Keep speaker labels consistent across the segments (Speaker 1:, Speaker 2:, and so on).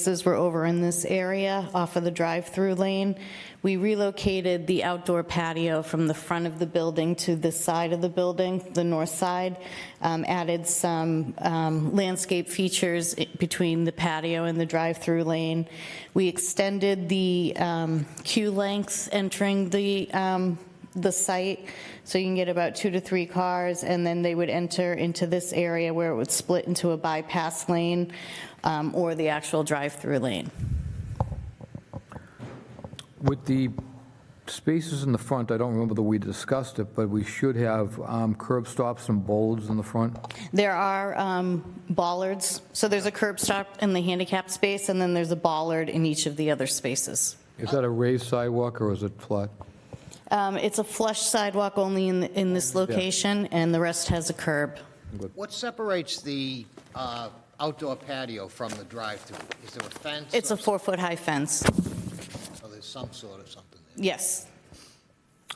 Speaker 1: spaces were over in this area off of the drive-through lane. We relocated the outdoor patio from the front of the building to the side of the building, the north side, um, added some um, landscape features i- between the patio and the drive-through lane. We extended the um, queue length entering the um, the site, so you can get about two to three cars, and then they would enter into this area where it would split into a bypass lane um, or the actual drive-through lane.
Speaker 2: With the spaces in the front, I don't remember that we discussed it, but we should have um, curb stops and bollards in the front.
Speaker 1: There are um, bollards, so there's a curb stop in the handicap space, and then there's a bollard in each of the other spaces.
Speaker 2: Is that a raised sidewalk or is it flat?
Speaker 1: Um, It's a flush sidewalk only in, in this location, and the rest has a curb.
Speaker 3: What separates the uh, outdoor patio from the drive-through? Is there a fence?
Speaker 1: It's
Speaker 3: or
Speaker 1: a four-foot-high fence,
Speaker 3: so There's some sort of something there.
Speaker 1: yes.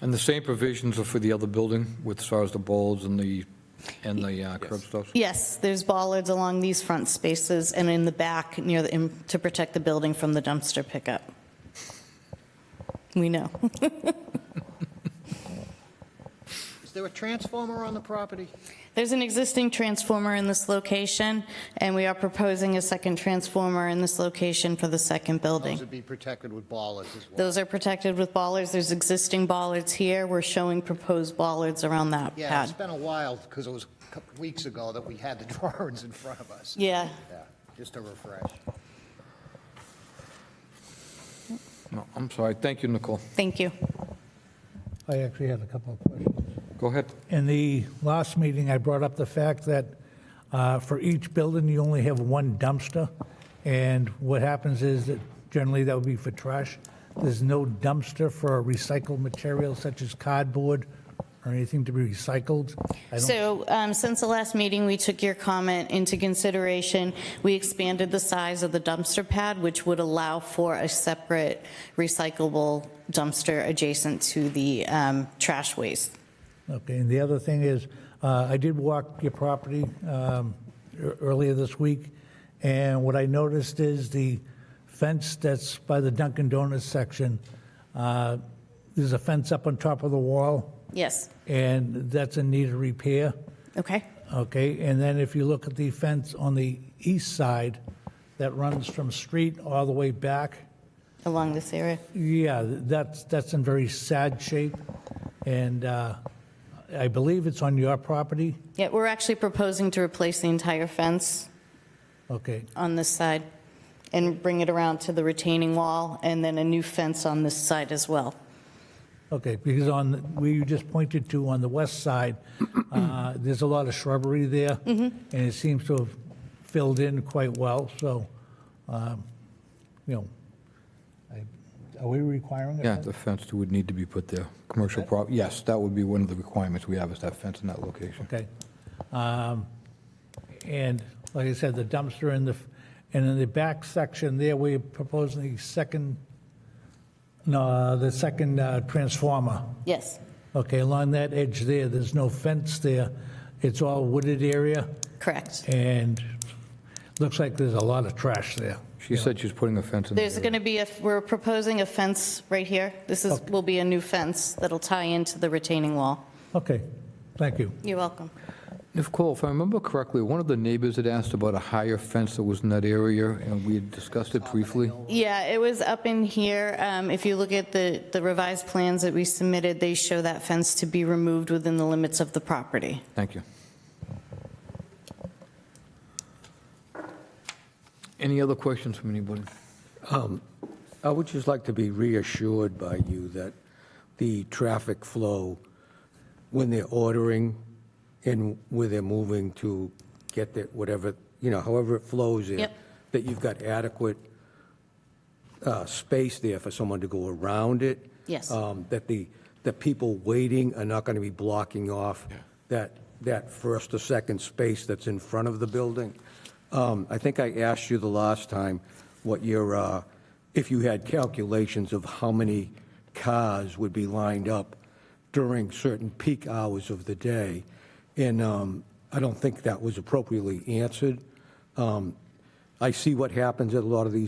Speaker 2: And the same provisions are for the other building with as far as the bollards and the, and the uh, curb stops?
Speaker 1: Yes, there's bollards along these front spaces and in the back near the, in- to protect the building from the dumpster pickup. We know.
Speaker 3: Is there a transformer on the property?
Speaker 1: There's an existing transformer in this location, and we are proposing a second transformer in this location for the second
Speaker 3: Those
Speaker 1: building.
Speaker 3: would be protected with bollards as well.
Speaker 1: Those are protected with bollards. There's existing bollards here. We're showing proposed bollards around that
Speaker 3: Yeah, it's
Speaker 1: pad.
Speaker 3: been a while, because it was a couple weeks ago that we had the drawings in front of us.
Speaker 1: Yeah,
Speaker 3: Yeah, Just to refresh.
Speaker 2: No, I'm sorry. Thank you, Nicole.
Speaker 1: thank you.
Speaker 4: I actually had a couple of questions.
Speaker 2: Go ahead.
Speaker 4: In the last meeting, I brought up the fact that uh, for each building, you only have one dumpster, and what happens is that generally that would be for trash. There's no dumpster for recycled material such as cardboard or anything to be recycled. I don't-
Speaker 1: So um, since the last meeting, we took your comment into consideration. We expanded the size of the dumpster pad, which would allow for a separate recyclable dumpster adjacent to the um, trash waste.
Speaker 4: Okay, and the other thing is, uh, I did walk your property um, ear- earlier this week, and what I noticed is the fence that's by the Dunkin' Donuts section, uh, there's a fence up on top of the wall,
Speaker 1: Yes,
Speaker 4: and that's in need of repair,
Speaker 1: okay?
Speaker 4: okay? And then if you look at the fence on the east side that runs from street all the way back,
Speaker 1: Along this area.
Speaker 4: yeah, that's, that's in very sad shape, and uh, I believe it's on your property,
Speaker 1: Yeah, we're actually proposing to replace the entire fence
Speaker 4: okay?
Speaker 1: on this side and bring it around to the retaining wall and then a new fence on this side as well.
Speaker 4: Okay, because on, where you just pointed to on the west side, uh, there's a lot of shrubbery there, and it seems to have filled in quite well, so, um, you know, I- are we requiring it?
Speaker 2: Yeah, the fence would need to be put there. Commercial prop, yes, that would be one of the requirements we have is that fence in that location.
Speaker 4: Okay. Um, And like I said, the dumpster in the, and in the back section there, we're proposing the second, no, the second uh, transformer.
Speaker 1: Yes,
Speaker 4: Okay, along that edge there, there's no fence there. It's all wooded area,
Speaker 1: correct.
Speaker 4: and looks like there's a lot of trash there.
Speaker 2: She said she's putting a fence in. the
Speaker 1: There's
Speaker 2: area.
Speaker 1: going to be, a we're proposing a fence right here. This is, will be a new fence that'll tie into the retaining wall.
Speaker 4: Okay, thank you.
Speaker 1: You're welcome.
Speaker 2: Nicole, if I remember correctly, one of the neighbors had asked about a higher fence that was in that area, and we had discussed it briefly.
Speaker 1: Yeah, it was up in here. Um, If you look at the the revised plans that we submitted, they show that fence to be removed within the limits of the property.
Speaker 2: Thank you. Any other questions from anybody?
Speaker 5: I would just like to be reassured by you that the traffic flow, when they're ordering and where they're moving to get their, whatever, you know, however it flows there,
Speaker 1: Yep.
Speaker 5: that you've got adequate uh, space there for someone to go around it.
Speaker 1: Yes.
Speaker 5: Um, That the, the people waiting are not going to be blocking off that, that first or second space that's in front of the building. Um, I think I asked you the last time what your, uh, if you had calculations of how many cars would be lined up during certain peak hours of the day. And um, I don't think that was appropriately answered. Um, I see what happens at a lot of these